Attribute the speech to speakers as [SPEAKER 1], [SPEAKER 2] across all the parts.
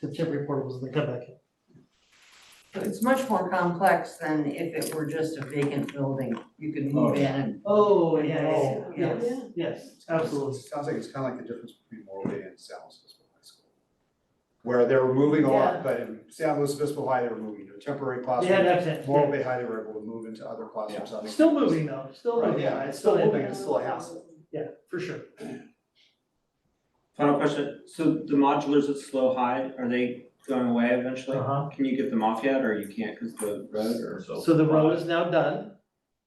[SPEAKER 1] the tip report was the comeback.
[SPEAKER 2] It's much more complex than if it were just a vacant building. You could
[SPEAKER 3] Oh.
[SPEAKER 2] move in and,
[SPEAKER 1] Oh,
[SPEAKER 2] yes, yes.
[SPEAKER 1] Yes, yes, absolutely.
[SPEAKER 3] Sounds like it's kind of like the difference between Morro Bay and San Luis Obispo High School. Where they were moving a lot, but in San Luis Obispo High, they were moving to a temporary
[SPEAKER 1] They had
[SPEAKER 3] classroom.
[SPEAKER 1] accent,
[SPEAKER 3] Morro
[SPEAKER 1] yeah.
[SPEAKER 3] Bay High, they were able to move into other classrooms. I think.
[SPEAKER 1] Still moving though, still
[SPEAKER 3] Right,
[SPEAKER 1] moving.
[SPEAKER 3] yeah, it's still moving, it's still a hassle.
[SPEAKER 1] Yeah, for sure.
[SPEAKER 4] Final question, so the modulars at Slow High, are they going away eventually?
[SPEAKER 1] Uh-huh.
[SPEAKER 4] Can you get them off yet, or you can't because the road or?
[SPEAKER 1] So the road is now done.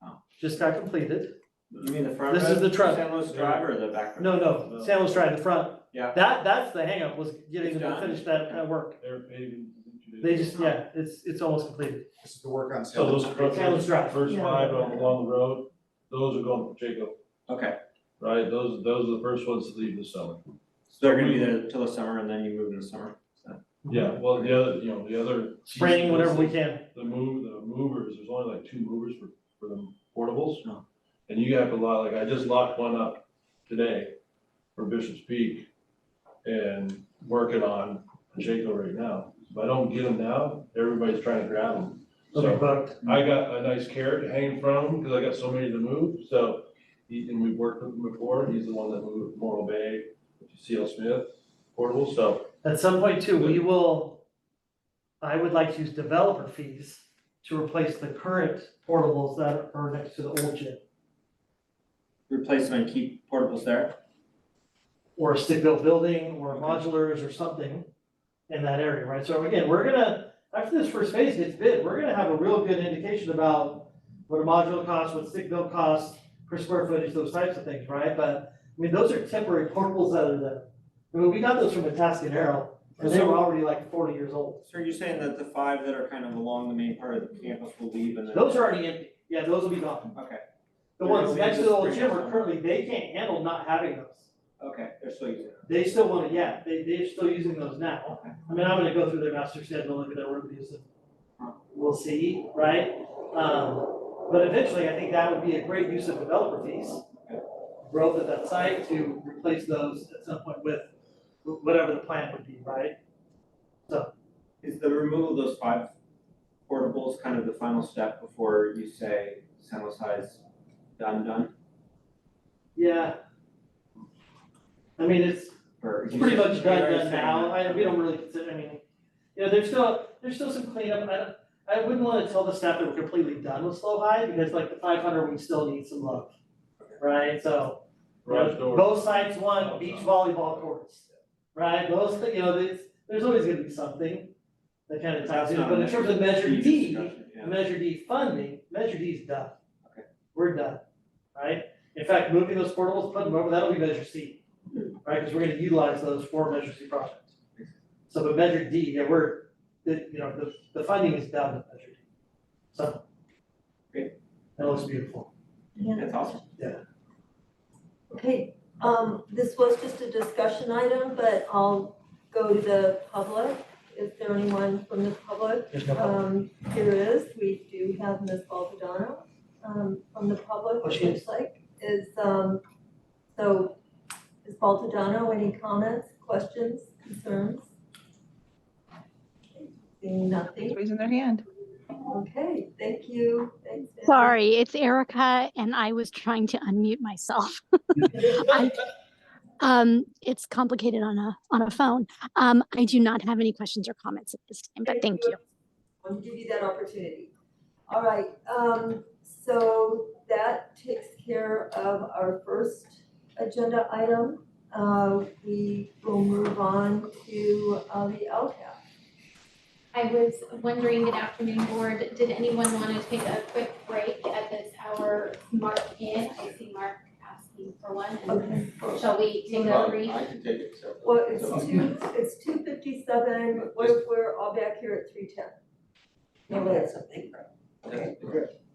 [SPEAKER 4] Oh.
[SPEAKER 1] Just got completed.
[SPEAKER 4] You mean the front road?
[SPEAKER 1] This is the truck.
[SPEAKER 4] San Luis Drive or the back? road?
[SPEAKER 1] No, no, Sam was trying the front.
[SPEAKER 4] Yeah.
[SPEAKER 1] That, that's the hangup was getting
[SPEAKER 4] It's
[SPEAKER 1] them to
[SPEAKER 4] done.
[SPEAKER 1] finish that, that work.
[SPEAKER 5] They're paving. in two
[SPEAKER 1] They
[SPEAKER 5] days.
[SPEAKER 1] just, yeah, it's, it's almost completed.
[SPEAKER 3] This is the work on
[SPEAKER 5] So
[SPEAKER 3] San
[SPEAKER 5] those
[SPEAKER 3] Luis.
[SPEAKER 5] trucks,
[SPEAKER 1] Yeah, let's drive.
[SPEAKER 5] first five on- along the road, those are going to Jacob,
[SPEAKER 4] Okay,
[SPEAKER 5] right? Those, those are the first ones to leave the summer.
[SPEAKER 4] so they're gonna be there till the summer and then you move in the summer? so.
[SPEAKER 5] Yeah, well, the other, you know, the other.
[SPEAKER 1] Spraying whatever we can.
[SPEAKER 5] The move, the movers, there's only like two movers for, for the portables.
[SPEAKER 4] No.
[SPEAKER 5] And you have a lot, like I just locked one up today for Bishop's Peak and working on Jacob right now. If I don't get them now, everybody's trying to grab them.
[SPEAKER 1] Okay,
[SPEAKER 5] So
[SPEAKER 1] booked.
[SPEAKER 5] I got a nice carrot to hang from because I got so many to move, so, he, and we've worked with him before, he's the one that moved Morro Bay, C L Smith, portable, so.
[SPEAKER 1] At some point too, we will, I would like to use developer fees to replace the current portables that are next to the old gym.
[SPEAKER 4] Replace them and keep portables there?
[SPEAKER 1] Or a stick-built building or modulars or something in that area, right? So again, we're gonna, after this first phase gets bid, we're gonna have a real good indication about what a module costs, what stick-built costs per square footage, those types of things, right? But, I mean, those are temporary portables that are there. I mean, we got those from Atascadero and they were already like forty years old.
[SPEAKER 4] So you're saying that the five that are kind of along the main part of the campus will leave and then?
[SPEAKER 1] Those are already empty, yeah, those will be gone.
[SPEAKER 4] Okay,
[SPEAKER 1] The ones next to the old gym are currently, they can't handle not having those.
[SPEAKER 4] okay, they're still using it.
[SPEAKER 1] They still want to, yeah, they, they're still using those now. I mean, I'm gonna go through their master schedule, look at their work use, and we'll see, right? Um, but eventually, I think that would be a great use of developer fees. Growth at that site to replace those at some point with whatever the plan would be, right?
[SPEAKER 4] Is the removal of those five portables kind of the final step before you say San Luis High is done, done?
[SPEAKER 1] Yeah. I mean, it's,
[SPEAKER 4] Or?
[SPEAKER 1] It's pretty much
[SPEAKER 4] You're
[SPEAKER 1] done
[SPEAKER 4] already
[SPEAKER 1] done
[SPEAKER 4] saying
[SPEAKER 1] now,
[SPEAKER 4] that.
[SPEAKER 1] I, we don't really consider, I mean, you know, there's still, there's still some cleanup, I, don't- I wouldn't wanna tell the staff that we're completely done with slow high, because like the five hundred, we still need some love. Right, so, you know,
[SPEAKER 5] Garage door,
[SPEAKER 1] both sides want beach volleyball courts, right, those, thi- you know, there's, there's always gonna be something that kind of ties
[SPEAKER 4] That's
[SPEAKER 1] in,
[SPEAKER 4] not
[SPEAKER 1] but in terms of measure
[SPEAKER 4] Previous
[SPEAKER 1] D,
[SPEAKER 4] discussion, yeah.
[SPEAKER 1] Measure D funding, Measure D is done.
[SPEAKER 4] Okay.
[SPEAKER 1] We're done, right? In fact, moving those portables, putting them over, that'll be Measure C, right? Because we're gonna utilize those for Measure C projects. So, but Measure D, yeah, we're, the, you know, the, the funding is done with Measure D. So.
[SPEAKER 4] Great.
[SPEAKER 1] That looks beautiful.
[SPEAKER 4] That's awesome.
[SPEAKER 6] Okay, um, this was just a discussion item, but I'll go to the public. Is there anyone from the public?
[SPEAKER 1] There's no problem.
[SPEAKER 6] Um, here is, we do have Ms. Baldadano, um, from the public,
[SPEAKER 1] Oh,
[SPEAKER 6] which
[SPEAKER 1] she is.
[SPEAKER 6] looks like is, um, so Ms. Baldadano, any comments, questions, concerns? Seeing nothing,
[SPEAKER 7] raising their hand.
[SPEAKER 6] okay, thank you, thanks. Nancy.
[SPEAKER 8] Sorry, it's Erica, and I was trying to unmute myself. Um, it's complicated on a on a phone. Um, I do not have any questions or comments at this time, but thank you.
[SPEAKER 6] I'll give you that opportunity. All right, um, so that takes care of our first agenda item. Uh, we will move on to, uh, the LCAP.
[SPEAKER 9] I was wondering, good afternoon, board, did anyone want to take a quick break at this hour mark in? I see Mark asking for one, and
[SPEAKER 6] Okay,
[SPEAKER 9] shall we take a brief?
[SPEAKER 3] I can take it, so.
[SPEAKER 6] well, it's two, it's two fifty-seven, we're, we're all back here at three ten. No, we had something. Okay.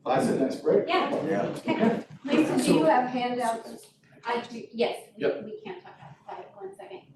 [SPEAKER 3] That's a nice break.
[SPEAKER 9] Yeah. Please, do you have handouts? I do, yes, we,
[SPEAKER 3] Yep.
[SPEAKER 9] we can talk outside, one second.